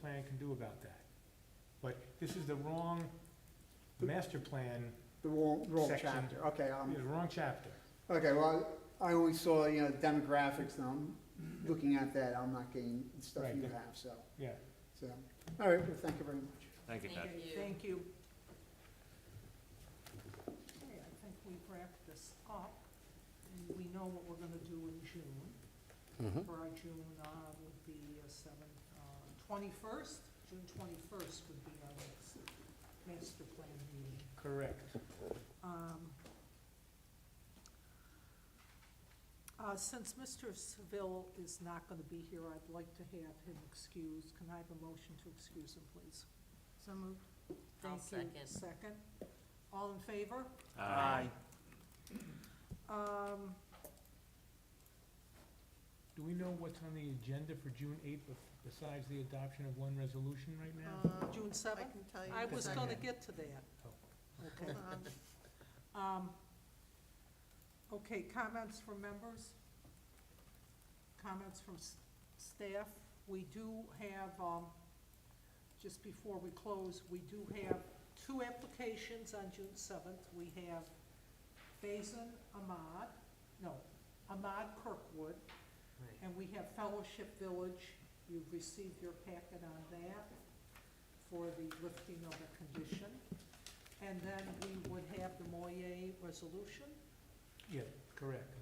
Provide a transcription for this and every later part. plan can do about that. But this is the wrong, the master plan The wrong, wrong Section. chapter, okay, um, is the wrong chapter. okay, well, I always saw, you know, demographics, and I'm looking at that, I'm not getting the stuff Right, you the- have, so, Yeah, so, all right, well, thank you very much. Thank you, Pat. Thank you. Okay, I think we've wrapped this up, and we know what we're gonna do in June. For our June, uh, would be seventh, uh, twenty-first, June twenty-first would be our next master plan meeting. correct. Um, uh, Since Mr. Seville is not going to be here, I'd like to have him excused. Can I have a motion to excuse him, please? So moved. I'll Thank you. second. Second. All in favor? Aye. Um, Do we know what's on the agenda for June eighth besides the adoption of one resolution right now? Uh, June I seventh? can tell you. I was going to Second. get to that. Okay. Hold on. Um, Okay, comments from members? Comments from s- staff? We do have, um, just before we close, we do have two applications on June seventh. We have Faison Ahmad, no, Ahmad Kirkwood, and we have Fellowship Village. You've received your packet on that for the lifting of a condition. And then we would have the Moyer resolution. Yeah, correct.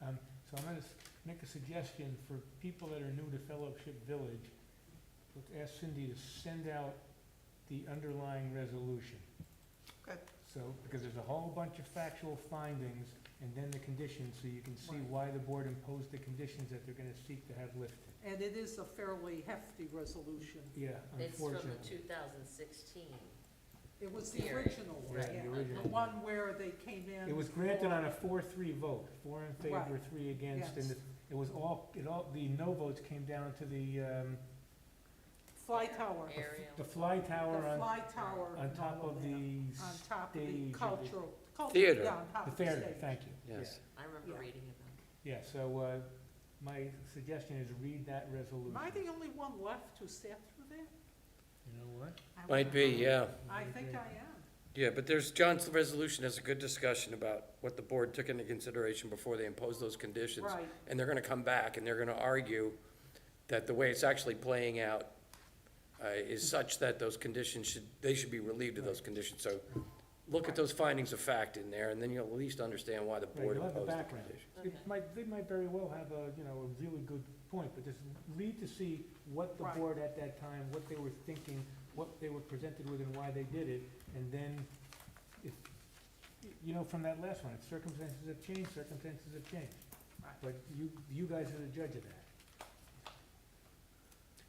Um, so I'm gonna s- make a suggestion for people that are new to Fellowship Village, let's ask Cindy to send out the underlying resolution. Okay. So, because there's a whole bunch of factual findings and then the conditions, so you can see Right. why the board imposed the conditions that they're gonna seek to have lifted. And it is a fairly hefty resolution. Yeah, It's from the unfortunately. two thousand sixteen. It was the Hearing. original one, Right, the yeah. original. The one where they came in. It was granted on a for- four-three vote, four in favor, Right. three against, and Yes. it- it was all, it all, the no votes came down to the, um, Fly tower. the f- Area. the fly tower The on, fly tower. on and top all of that. the, On s- top of stage the of the- cultural. cultural- Theater. yeah, on top the of the theater, stage. thank you. Yeah. Yes. I Yeah. remember reading about Yeah, so, uh, my suggestion is read that resolution. Am I the only one left who sat through that? You know what? I Might be, wonder. yeah. I think I am. Yeah, but there's, John's resolution has a good discussion about what the board took into consideration before they imposed those conditions. Right. And they're gonna come back and they're gonna argue that the way it's actually playing out uh, is such that those conditions should, they should be relieved of those conditions. So look at those findings of fact in there and then you'll at least understand why the Right, board you'll have the imposed the background. condition. It Okay. might, they might very well have a, you know, a really good point, but just read to see what the Right. board at that time, what they were thinking, what they were presented with and why they did it, and then if, y- you know, from that last one, if circumstances have changed, circumstances have changed. Right. But you, you guys are the judge of that.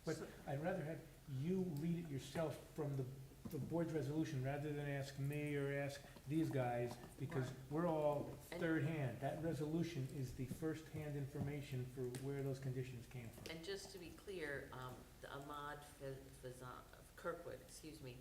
But So- I'd rather have you read it yourself from the, the board's resolution, rather than ask me or ask these guys, because we're all And- third hand. That resolution is the first-hand information for where those conditions came it. from. And just to be clear, um, the Ahmad Fa- Fazan, Kirkwood, excuse me,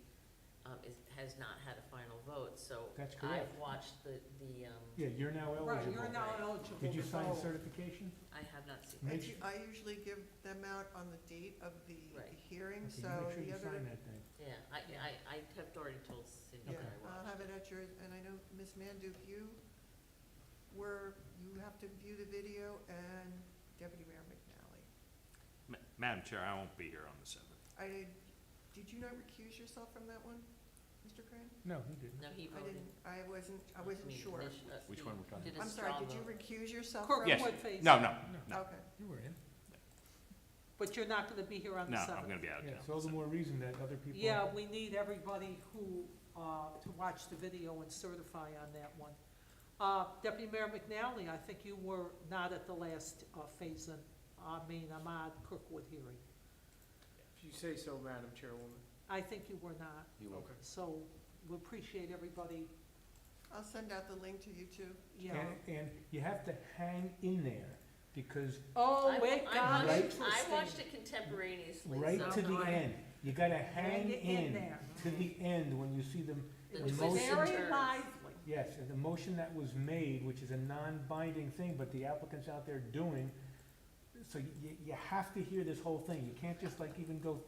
um, is, has not had a final vote, so. That's correct. I've watched the, the, um, Yeah, you're now Right, eligible. you're now eligible. Did you to sign vote. certification? I have not seen. I Make ju- su- I usually give them out on the date of the the Right. hearing, Okay, so Make sure the you other, sign that thing. Yeah, I, I, I have already told Cindy yeah, Uh-huh. that I I'll watched. have it at your, and I know, Ms. Manduk, you were, you have to view the video, and Deputy Mayor McNally. Ma- Madam Chair, I won't be here on the seventh. I, did you not recuse yourself from that one, Mr. Crane? No, he didn't. No, he I voted. didn't, I wasn't, I I wasn't mean, sure. initi- uh, Which he one we're talking did a I'm sorry, straw did you vote. recuse yourself from? Yes. Kirkwood Faison. No, no, no, Okay, You were in. But you're not gonna be here on no, the I'm seventh. gonna be out Yeah, of so all the town. more reason that other people. Yeah, we need everybody who, uh, to watch the video and certify on that one. Uh, Deputy Mayor McNally, I think you were not at the last, uh, Faison, I mean, Ahmad Kirkwood hearing. If you say so, Madam Chairwoman. I think you were not, You will. so we appreciate everybody, I'll send out the link to you too. you know. And, and you have to hang in there, because Oh, I- wait, I God, watched- interesting. I watched it contemporaneously, right so- to the end, you gotta hang Hang it in in there. to the end when you see them The It the was motion- very turns. lively. Yes, and the motion that was made, which is a non-binding thing, but the applicant's out there doing, so you, you have to hear this whole thing, you can't just like even go